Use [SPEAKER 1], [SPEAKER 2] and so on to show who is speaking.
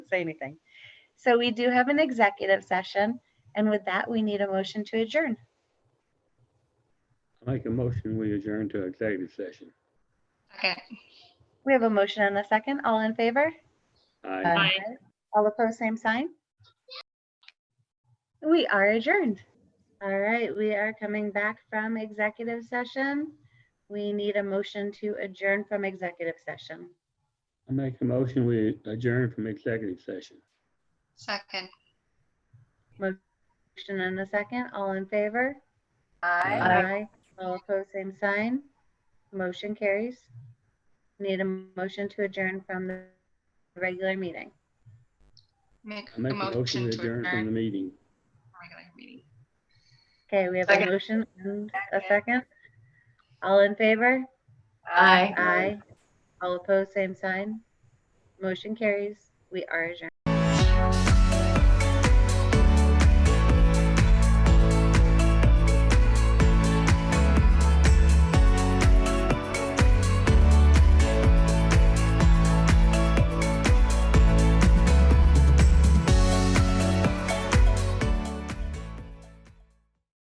[SPEAKER 1] say anything. So we do have an executive session, and with that, we need a motion to adjourn.
[SPEAKER 2] I Make a motion, we adjourn to executive session.
[SPEAKER 3] Second.
[SPEAKER 1] We have a motion and a second. All in favor?
[SPEAKER 2] Aye.
[SPEAKER 3] Aye.
[SPEAKER 1] All opposed, same sign? We are adjourned. All right, we are coming back from executive session. We need a motion to adjourn from executive session.
[SPEAKER 2] I make a motion, we adjourn from executive session.
[SPEAKER 3] Second.
[SPEAKER 1] Motion and a second. All in favor?
[SPEAKER 2] Aye.
[SPEAKER 1] All opposed, same sign. Motion carries. Need a motion to adjourn from the regular meeting.
[SPEAKER 3] Make
[SPEAKER 2] I
[SPEAKER 3] a
[SPEAKER 2] make a motion,
[SPEAKER 3] motion
[SPEAKER 2] we
[SPEAKER 3] to adjourn
[SPEAKER 2] adjourn from the
[SPEAKER 3] the
[SPEAKER 2] meeting.
[SPEAKER 3] regular meeting.
[SPEAKER 1] Okay, we have a
[SPEAKER 4] Second.
[SPEAKER 1] motion and a
[SPEAKER 4] Second.
[SPEAKER 1] second. All in favor?
[SPEAKER 4] Aye.
[SPEAKER 1] Aye. All opposed, same sign. Motion carries. We are adjourned.